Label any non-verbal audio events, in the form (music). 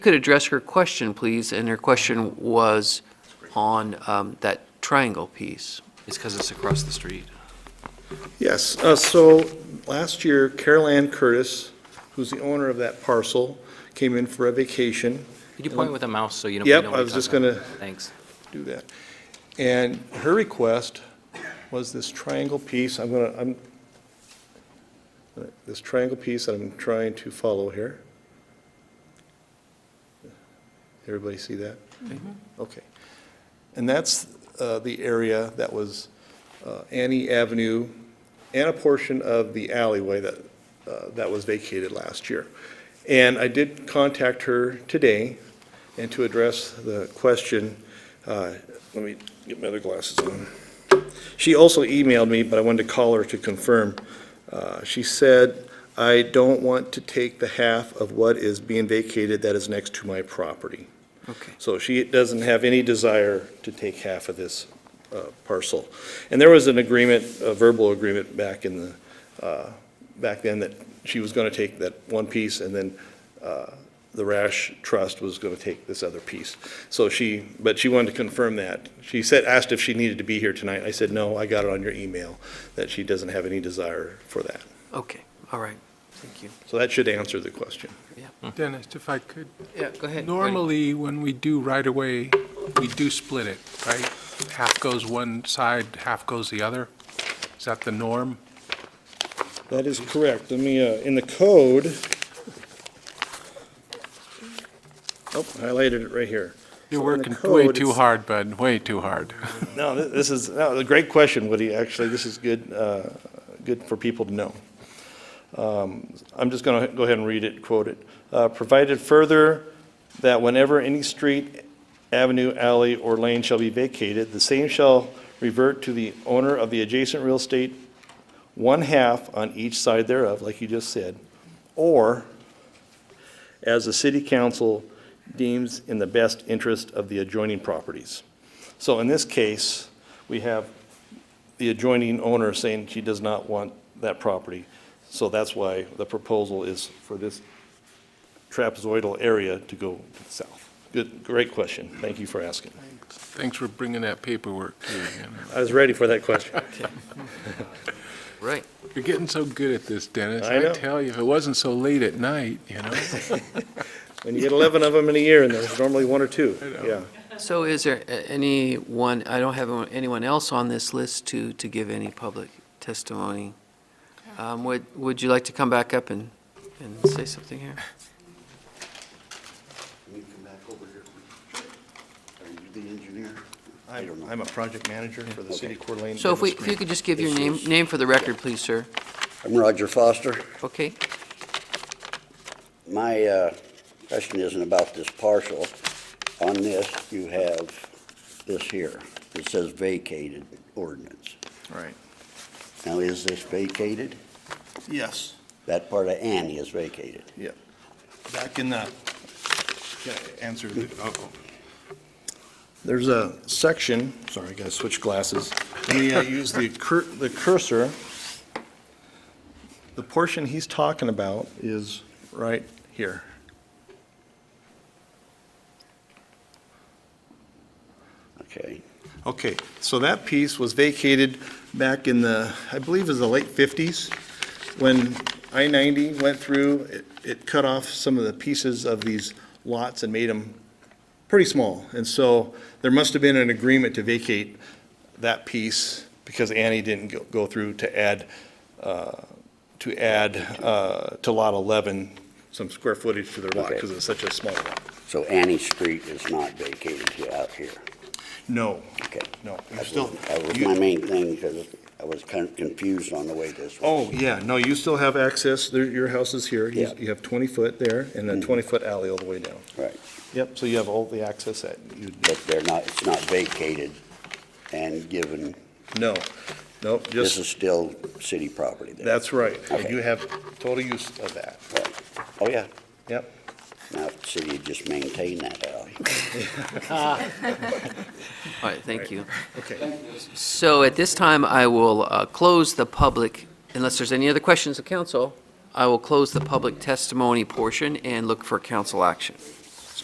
could address her question, please, and her question was on um, that triangle piece. It's because it's across the street. Yes, uh, so last year Carol Ann Curtis, who's the owner of that parcel, came in for a vacation, Could you point with a mouse so you know? we Um, Yep, know what I you're was just talking gonna- about? Thanks. do that. And her request was this triangle piece, I'm gonna, I'm, this triangle piece that I'm trying to follow here. Everybody see that? Okay. And that's uh, the area that was uh, Annie Avenue and a portion of the alleyway that, uh, that was vacated last year. And I did contact her today, and to address the question, uh, let me get my other glasses on. She also emailed me, but I wanted to call her to confirm. Uh, She said, "I don't want to take the half of what is being vacated that is next to my property." Okay. So she doesn't have any desire to take half of this uh, parcel. And there was an agreement, a verbal agreement back in the, uh, back then that she was going to take that one piece and then uh, the Rash Trust was going to take this other piece. So she, but she wanted to confirm that. She said, asked if she needed to be here tonight. I said, no, I got it on your email, that she doesn't have any desire for that. Okay, all right, thank you. So that should answer the question. Dennis, if I could, Yeah, go ahead. normally, when we do right-of-way, we do split it, right? Half goes one side, half goes the other. Is that the norm? That is correct. Let me, uh, in the code, oh, highlighted it right here. You're So in the working way code, too it's- hard, bud, way too hard. (laughs) No, thi- this is, no, a great question, Woody, actually. This is good, uh, good for people to know. Um, I'm just going to go ahead and read it, quote it. Uh, Provided further that whenever any street, avenue, alley, or lane shall be vacated, the same shall revert to the owner of the adjacent real estate, one half on each side thereof, like you just said, or as the city council deems in the best interest of the adjoining properties. So in this case, we have the adjoining owner saying she does not want that property. So that's why the proposal is for this trapezoidal area to go to the south. Good, great question. Thank you for asking. Thanks for bringing that paperwork, too. you know. I was ready for that question. (laughs) Right, You're getting so good at this, Dennis. I know. I tell you, if it wasn't so late at night, you know? And you get 11 of them in a year, and there's normally one or two. know. Yeah. so is there a- anyone, I don't have anyone else on this list to, to give any public testimony. Um, Would, would you like to come back up and, and say something here? Can you come back over here? Are you the engineer? I don't know. I'm a project manager for the city of Coeur d'Alene. So if we, if you could just give your name, name for the record, please, sir. I'm Roger Foster. Okay, My uh, question isn't about this parcel. On this, you have this here. It says vacated ordinance. Right. Now, is this vacated? Yes, That part of Annie is vacated. yeah. Back in the, answer. There's a section, sorry, I gotta switch glasses. Let me uh, use the cur- the cursor. The portion he's talking about is right here. Okay. Okay, so that piece was vacated back in the, I believe it was the late 50s, when I-90 went through, it- it cut off some of the pieces of these lots and made them pretty small. And so there must have been an agreement to vacate that piece because Annie didn't go- go through to add, uh, to add uh, to Lot 11 some square footage to their lot Okay. because it's such a small lot. So Annie Street is not vacated here- out here. No, Okay. no, you That still. was- That was you- my main thing because I was kind of confused on the way this was. Oh, yeah, no, you still have access, There- your house is here, you Yeah. Mm. you have 20 foot there, and a 20 foot alley all the way down. Right. Yep, so you have all the access that you, But they're not, it's not vacated and given no, nope, This is just, still city property then? that's right. And Okay. you have total use of that, Right. Oh, yeah. yep. Now, if the city would just maintain that uh, alley. Uh, (laughs) all right, thank you. Okay, So at this time, I will uh, close the public, unless there's any other questions of council, I will close the public testimony portion and look for council action.